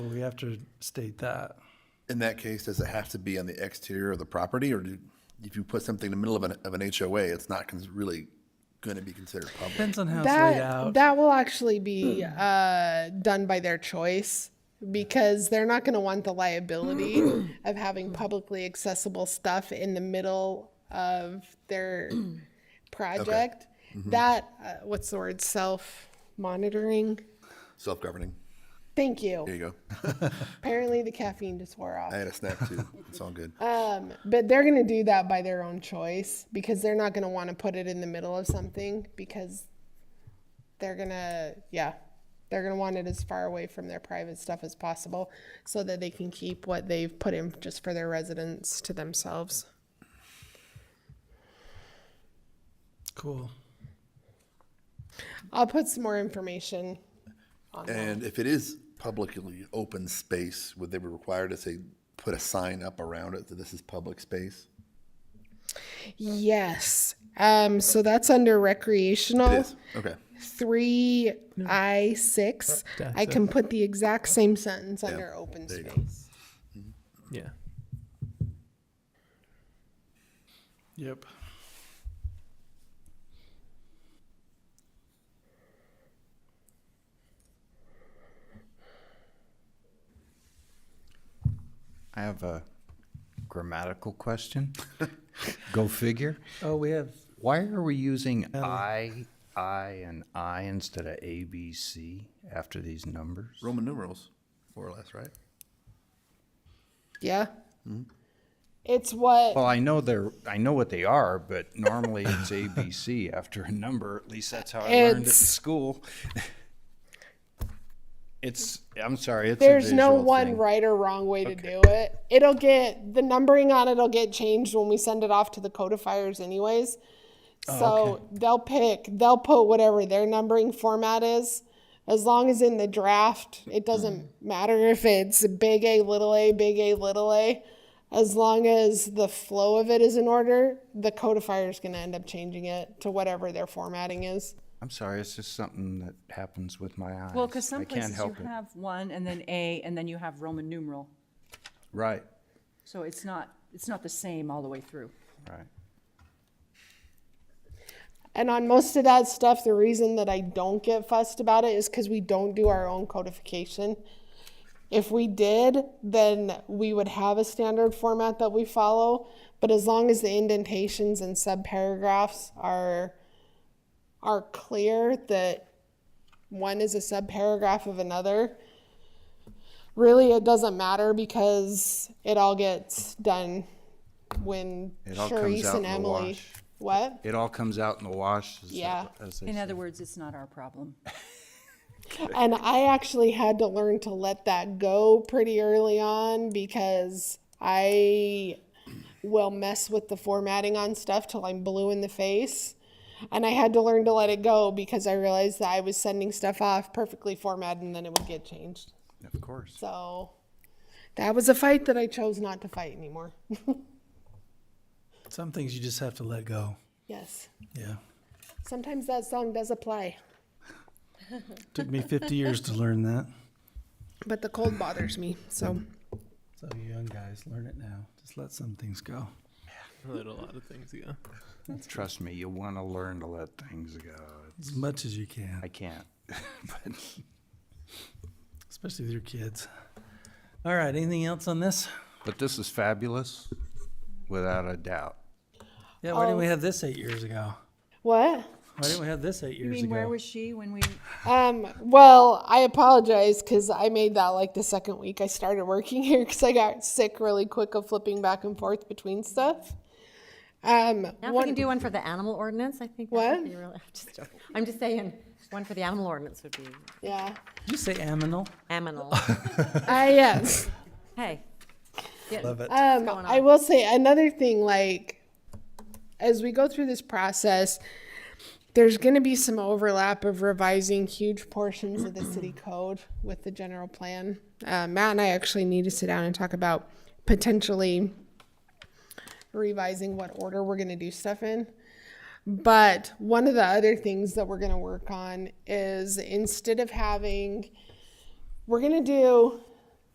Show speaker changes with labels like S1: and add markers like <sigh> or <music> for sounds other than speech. S1: We have to state that.
S2: In that case, does it have to be on the exterior of the property, or do, if you put something in the middle of an, of an HOA, it's not cons- really going to be considered public?
S1: Depends on how it's laid
S3: That
S1: out.
S3: that will actually be uh, done by their choice because they're not going to want the liability of having publicly accessible stuff in the middle of their project. That uh, what's the word self monitoring?
S2: Self-governing.
S3: Thank you.
S2: There you go.
S3: Apparently the caffeine just wore off.
S2: I had a snack too. It's all good.
S3: Um, but they're going to do that by their own choice because they're not going to want to put it in the middle of something because they're going to, yeah, they're going to want it as far away from their private stuff as possible so that they can keep what they've put in just for their residents to themselves.
S1: Cool.
S3: I'll put some more information.
S2: And if it is publicly open space, would they be required to say, put a sign up around it that this is public space?
S3: Yes. Um, so that's under recreational.
S2: It is, okay.
S3: 3I6.
S1: That's
S3: I can put the exact same sentence under open
S2: There you go.
S3: space.
S1: Yeah. Yep.
S4: I have a grammatical question. <laughs> Go figure.
S1: Oh, we have,
S4: Why are we using
S3: Uh,
S4: I, I, and I instead of A, B, C after these numbers?
S2: Roman numerals, more or less, right?
S3: Yeah.
S2: Mm-hmm.
S3: It's what
S4: Well, I know they're, I know what they are, but normally it's A, B, C after a number. At least that's how I learned at
S3: It's-
S4: school. <laughs> It's, I'm sorry, it's a
S3: there's no
S4: visual
S3: one
S4: thing.
S3: right or wrong way to do it. It'll get the numbering on it'll get changed when we send it off to the codifiers anyways. So they'll pick they'll put whatever their numbering format is. As long as in the draft, it doesn't matter if it's big A, little a, big A, little a. As long as the flow of it is in order, the codifier is going to end up changing it to whatever their formatting is.
S4: I'm sorry, it's just something that happens with my eyes.
S5: Well, because
S4: I
S5: some
S4: can't
S5: places you
S4: help it.
S5: have one and then A, and then you have Roman numeral.
S4: Right,
S5: So it's not, it's not the same all the way through.
S4: right.
S3: And on most of that stuff, the reason that I don't get fussed about it is because we don't do our own codification. If we did, then we would have a standard format that we follow. But as long as the indentations and subparagraphs are are clear that one is a subparagraph of another, really it doesn't matter because it all gets done when
S4: It all comes
S3: Charisse
S4: out
S3: and
S4: in the
S3: Emily.
S4: wash.
S3: What?
S4: It all comes out in the wash. as-
S3: Yeah.
S4: as they
S5: In
S4: say.
S5: other words, it's not our problem.
S3: And I actually had to learn to let that go pretty early on because I will mess with the formatting on stuff till I'm blue in the face. And I had to learn to let it go because I realized that I was sending stuff off perfectly formatted and then it would get changed.
S4: Of course.
S3: So that was a fight that I chose not to fight anymore. <laughs>
S1: some things you just have to let go.
S3: yes.
S1: Yeah.
S3: Sometimes that song does apply,
S1: Took me
S5: <laughs>
S1: 50 years to learn that.
S3: but the cold bothers me. So
S1: So you young guys, learn it now. Just let some things go.
S6: Let a lot of things go.
S4: Trust me, you want to learn to let things go.
S1: As much as you can,
S4: I can't.
S1: especially with your kids. All right, anything else on this?
S4: But this is fabulous, without a doubt.
S1: Yeah, why didn't
S5: Oh.
S1: we have this eight years ago?
S3: what?
S1: Why didn't we have this eight years
S5: You mean,
S1: ago?
S5: where was she when we,
S3: Um, well, I apologize because I made that like the second week I started working <laughs> here because I got sick really quick of flipping back and forth between stuff. Um,
S7: Now if we
S3: one,
S7: can do one for the animal ordinance, I think that
S3: What?
S7: would be really, I'm just joking. I'm just saying, one for the animal ordinance
S3: <laughs>
S7: would be
S3: yeah,
S1: Did you say aminal?
S7: aminal.
S3: I yes.
S7: Hey,
S1: Love it.
S3: Um,
S7: going
S3: I will say another thing, like as we go through this process, there's going to be some overlap of revising huge portions of the city code with the general plan. Uh, Matt and I actually need to sit down and talk about potentially revising what order we're going to do stuff in. But one of the other things that we're going to work on is instead of having, we're going to do